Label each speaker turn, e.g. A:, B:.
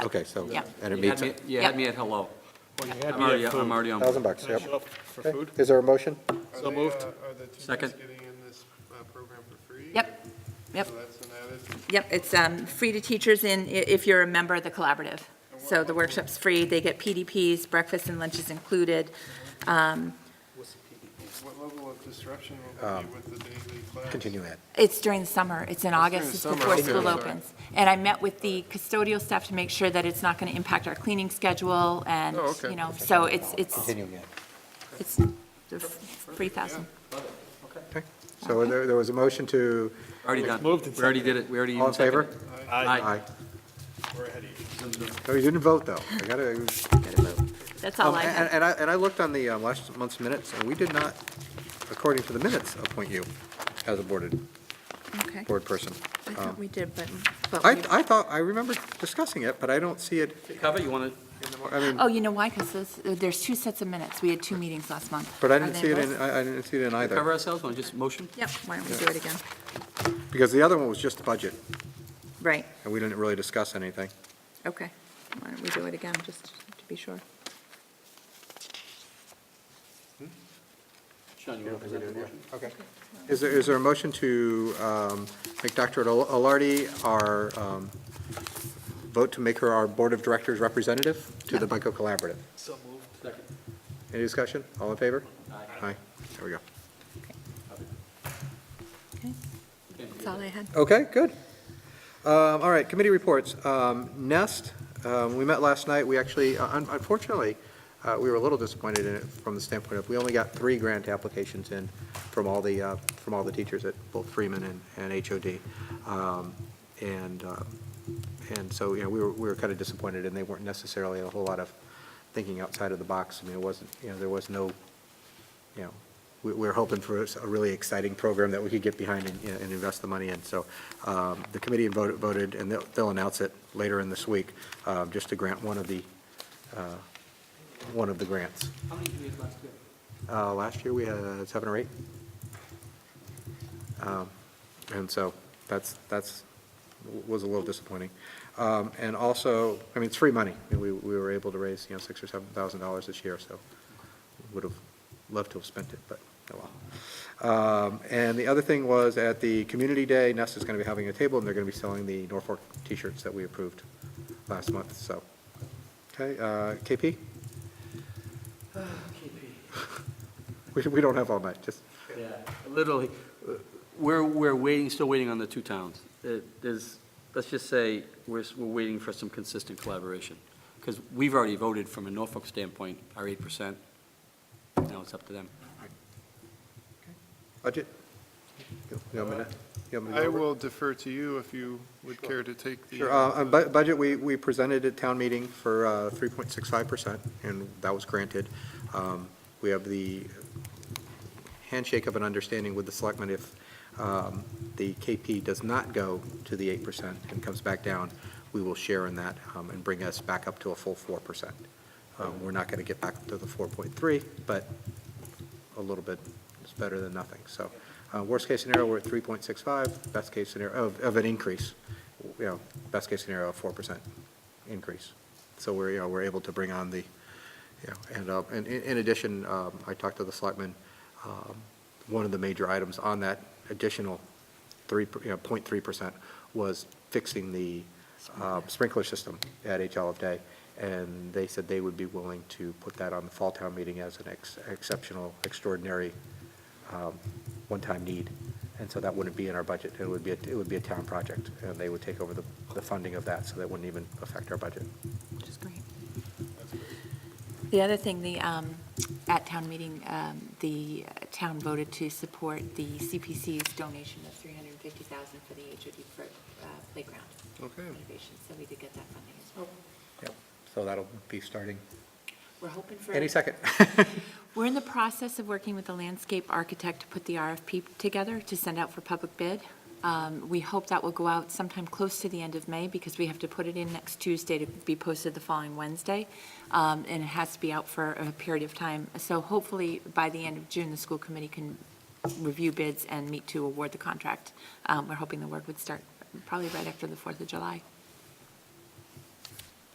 A: Okay, so,
B: Yeah.
A: and it
C: You
A: meets,
C: had me, you had me at hello.
D: Well, you had
C: I'm
D: me at
C: already, I'm
D: food.
C: already on. board.
A: thousand bucks,
D: Can I
A: yep.
D: show up for
A: Okay,
D: food?
A: Is there a motion?
D: So moved.
E: Are the two
C: Second.
E: guys getting in this uh, program for free?
B: Yep, yep,
E: So that's an added.
B: yep, it's um, free to teachers in, i- if you're a member of the collaborative. So the workshop's free, they get PDPs, breakfast and lunch is included. Um,
E: What level of disruption will be with the daily class?
A: Um, Continue Ed.
B: It's during the summer, it's in August, it's
E: summer,
B: before
E: okay,
B: school
E: sorry.
B: opens. And I met with the custodial staff to make sure that it's not going to impact our cleaning schedule and,
E: Oh, okay.
B: you know, so it's, it's,
A: Continue Ed.
B: it's the f- 3,000.
A: Okay, so there, there was a motion to,
C: Already done.
D: Moved and
C: We already did it, we already.
A: all in
C: even seconded
A: favor?
C: it.
A: Aye.
E: We're ahead of you.
A: Oh, you didn't vote, though. I gotta,
B: That's all
A: Um,
B: Oh, I
A: and
B: have.
A: and I, and I looked on the um, last month's minutes, and we did not, according to the minutes, appoint you as a boarded,
B: Okay,
A: board person.
B: I thought we did, but,
A: I, I thought, I remember discussing it, but I don't see it,
C: Cover, you want
A: in the mo- I mean,
B: Oh, you know why? Because there's two sets of minutes. We had two meetings last month.
A: but I
B: Are
A: didn't
B: they
A: see it
B: both-
A: in, uh, I, I didn't see it in
C: to cover
A: either.
C: ourselves, want to just motion?
B: Yep, why don't we do it again?
A: Because the other one was just the budget,
B: Right,
A: and we didn't really discuss anything.
B: okay. Why don't we do it again, just to be sure?
C: Sean, you want to present the motion?
A: Okay. Is there, is there a motion to um, make Dr. Al- Alardi our, um, vote to make her our Board of Directors representative to the BICO Collaborative?
C: So moved. Second.
A: Any discussion? All in favor?
C: Aye.
A: Aye. There we go.
B: Okay, that's all I had.
A: Okay, good. Um, All right, committee reports. Um, Nest, um, we met last night, we actually, un- unfortunately, uh, we were a little disappointed in it from the standpoint of, we only got three grant applications in from all the, uh, from all the teachers at both Freeman and- and HOD. Um, And, uh, and so, you know, we were, we were kind of disappointed, and they weren't necessarily a whole lot of thinking outside of the box. I mean, it wasn't, you know, there was no, you know, we, we're hoping for a really exciting program that we could get behind and, you know, and invest the money in. So, um, the committee voted, voted, and they'll, they'll announce it later in this week, um, just to grant one of the, uh, one of the grants.
C: How many did we have last year?
A: Uh, last year, we had seven or eight. Um, And so that's, that's, was a little disappointing. Um, And also, I mean, it's free money. I mean, We, we were able to raise, you know, six or seven thousand dollars this year, so would have loved to have spent it, but oh well. Um, And the other thing was at the Community Day, Nest is going to be having a table and they're going to be selling the Norfolk t-shirts that we approved last month, so. Okay, uh, KP? We, we don't have all night, just,
C: Yeah, literally, uh, we're, we're waiting, still waiting on the two towns. It is, let's just say, we're, s- we're waiting for some consistent collaboration. Because we've already voted from a Norfolk standpoint, our eight percent. Now it's up to them.
A: budget? You want me to- you want me to go
E: I
A: over it?
E: will defer to you if you would care to take the.
A: Sure, uh, on bu- budget, we, we presented at town meeting for uh, 3.65%, and that was granted. Um, We have the handshake of an understanding with the selectmen if um, the KP does not go to the 8% and comes back down, we will share in that um, and bring us back up to a full 4%. Um, We're not going to get back to the 4.3, but a little bit is better than nothing. So uh, worst-case scenario, we're at 3.65, best-case scenario, of, of an increase, you know, best-case scenario, a 4% increase. So we're, you know, we're able to bring on the, you know, and, uh, and in in addition, um, I talked to the selectmen, um, one of the major items on that additional 3, per- you know, 0.3% was fixing the uh, sprinkler system at HL of Day, and they said they would be willing to put that on the fall town meeting as an ex- exceptional, extraordinary, um, one-time need. And so that wouldn't be in our budget, it would be, a- it would be a town project, and they would take over the, the funding of that, so that wouldn't even affect our budget.
B: Which is great. The other thing, the, um, at town meeting, um, the town voted to support the CPC's donation of 350,000 for the HOD for, uh, playground
E: Okay.
B: renovation, so we did get that funding as well.
A: Yep. So that'll be starting
B: Oh, We're hoping for.
A: any second.
B: We're in the process of working with the landscape architect to put the RFP together to send out for public bid. Um, We hope that will go out sometime close to the end of May because we have to put it in next Tuesday to be posted the following Wednesday. Um, And it has to be out for a period of time. So hopefully, by the end of June, the school committee can review bids and meet to award the contract. Um, We're hoping the work would start probably right after the Fourth of July.